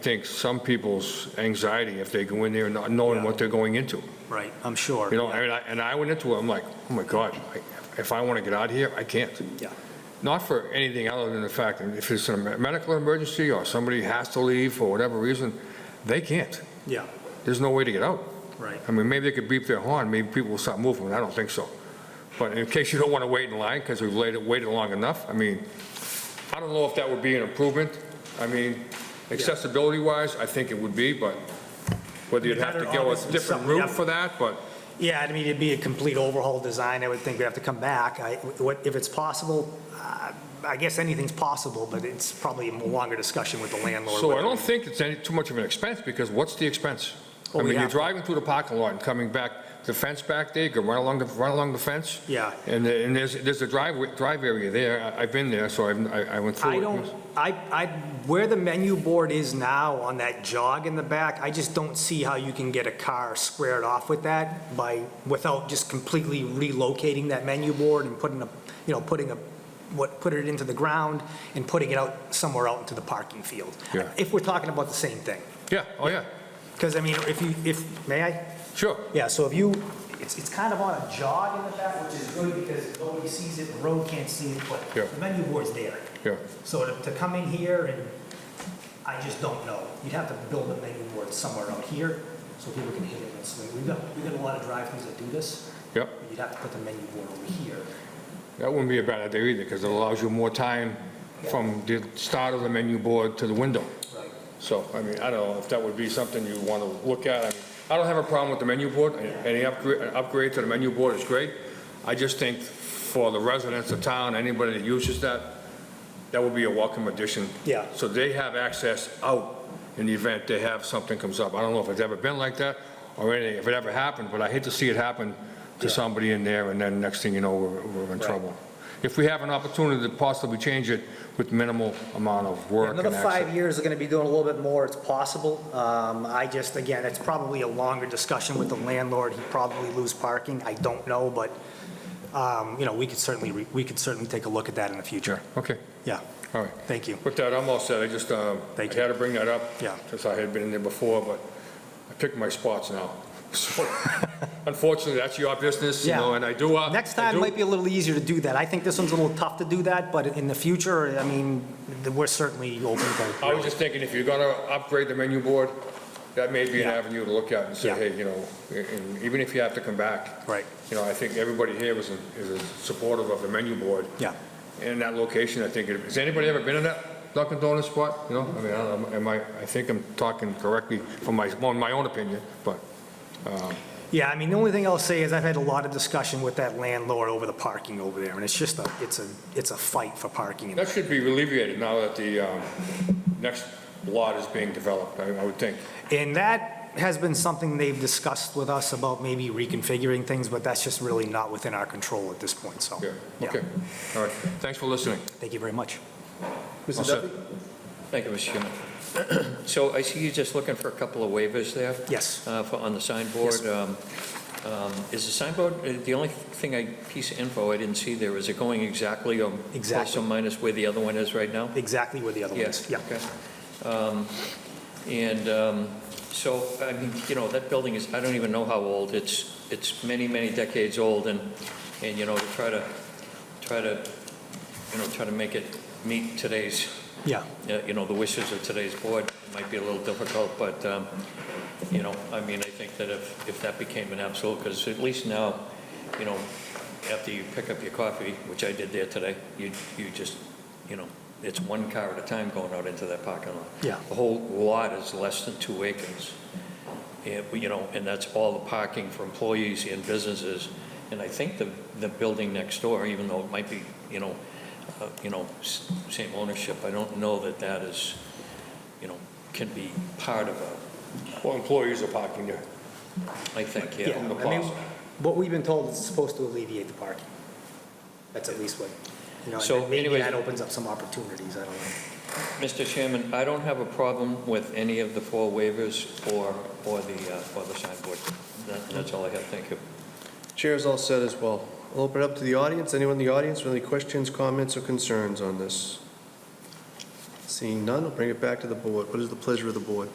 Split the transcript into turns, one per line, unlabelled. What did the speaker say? think some people's anxiety if they go in there not knowing what they're going into.
Right, I'm sure.
You know, and I, and I went into it, I'm like, oh my God, I- if I want to get out of here, I can't.
Yeah.
Not for anything other than the fact that if it's a medical emergency or somebody has to leave for whatever reason, they can't.
Yeah,
There's no way to get out.
right.
I mean, maybe they could beep their horn, maybe people will stop moving, I don't think so. But in case you don't want to wait in line, because we've waited, waited long enough, I mean, I don't know if that would be an improvement. I mean, accessibility-wise, I think it would be, but whether you'd have to go a different route for that, but
Yeah, I mean, it'd be a complete overhaul design. I would think we have to come back. I, what, if it's possible, uh, I guess anything's possible, but it's probably a longer discussion with the landlord.
So I don't think it's any, too much of an expense, because what's the expense?
Oh,
I mean,
yeah.
you're driving through the parking lot and coming back, the fence back there, you can run along, the run along the fence.
Yeah.
And, the- and there's, there's a drive, drive area there, I- I've been there, so I've- I, I went through it.
I don't, I, I, where the menu board is now on that jog in the back, I just don't see how you can get a car squared off with that by, without just completely relocating that menu board and putting a, you know, putting a, what, put it into the ground and putting it out somewhere out into the parking field.
Yeah.
If we're talking about the same thing.
Yeah, oh, yeah,
Because I mean, if you, if, may I?
sure.
Yeah, so if you, it's, it's kind of on a jog in the back, which is good because nobody sees it, the road can't see it,
Yeah.
but the menu board's there.
Yeah.
So to, to come in here and, I just don't know. You'd have to build a menu board somewhere out here so people can hit it and swing. We've got, we've got a lot of drive-throughs that do this.
Yep.
but You'd have to put the menu board over here.
That wouldn't be a bad idea either, because it allows you more time from the start of the menu board to the window.
Right.
So, I mean, I don't know if that would be something you want to look at. I mean, I don't have a problem with the menu board. Any upgrade, an upgrade to the menu board is great. I just think for the residents of town, anybody that uses that, that would be a welcome addition.
Yeah.
So they have access out in the event they have, something comes up. I don't know if it's ever been like that or anything, if it ever happened, but I hate to see it happen to
Yeah.
somebody in there and then next thing you know, we're, we're in trouble. If we have an opportunity to possibly change it with minimal amount of work and
Another
access.
five years, they're gonna be doing a little bit more, it's possible. Um, I just, again, it's probably a longer discussion with the landlord, he'd probably lose parking, I don't know, but, um, you know, we could certainly, re- we could certainly take a look at that in the
Yeah,
future.
okay,
Yeah,
all right.
thank you.
With that, I'm all set. I just, um, I
Thank you.
had to bring that up.
Yeah.
Since I had been in there before, but I picked my spots now. So, Unfortunately, that's your business, you
Yeah.
know, and I do. uh,
Next
I
time
do-
might be a little easier to do that. I think this one's a little tough to do that, but in the future, I mean, we're certainly open to.
I was just thinking, if you're gonna upgrade the menu board, that may be an
Yeah.
avenue to look at and say,
Yeah.
hey, you know, and even if you have to come back.
Right.
You know, I think everybody here was, is supportive of the menu board.
Yeah,
in that location, I think, it- has anybody ever been in that Dunkin' Donuts spot? You know, I mean, I don't know, am I, I think I'm talking correctly from my, well, my own opinion, but,
yeah, I mean, the only thing I'll say is I've had a lot of discussion with that landlord over the parking over there, and it's just a, it's a, it's a fight for parking in
that should be alleviated now that the, um, next lot is being developed, I, I would think.
And that has been something they've discussed with us about maybe reconfiguring things, but that's just really not within our control at this point, so.
Yeah,
yeah.
okay, all right, thanks for listening.
Thank you very much.
All
Mr.
set.
Duffy? Thank you, Mr. Chairman. So I see you're just looking for a couple of waivers there
Yes.
uh, for- on the signboard. Um, um, Is the signboard, uh, the only thing I, piece of info I didn't see there, is it going exactly or plus
Exactly.
or minus where the other one is right now?
Exactly where the other one
Yes,
is. Yeah.
okay. Um, And um, so, I mean, you know, that building is, I don't even know how old, it's, it's many, many decades old, and, and, you know, to try to, try to, you know, try to make it meet today's
Yeah,
uh, you know, the wishes of today's board might be a little difficult, but, um, you know, I mean, I think that if, if that became an absolute, because at least now, you know, after you pick up your coffee, which I did there today, you, you just, you know, it's one car at a time going out into that parking lot.
Yeah.
The whole lot is less than two acres. And, you know, and that's all the parking for employees and businesses. And I think the, the building next door, even though it might be, you know, uh, you know, s- same ownership, I don't know that that is, you know, can be part of a,
Well, employees are parking there.
I think,
yeah.
yeah.
I mean, what we've been told is it's supposed to alleviate the parking. That's at least what, you know,
So
and maybe
anyways-
that opens up some opportunities, I don't know.
Mr. Chairman, I don't have a problem with any of the four waivers or, or the, uh, or the signboard. That- That's all I have, thank you.
Chair's all set as well. I'll open it up to the audience. Anyone in the audience with any questions, comments, or concerns on this? Seeing none, I'll bring it back to the board. What is the pleasure of the board?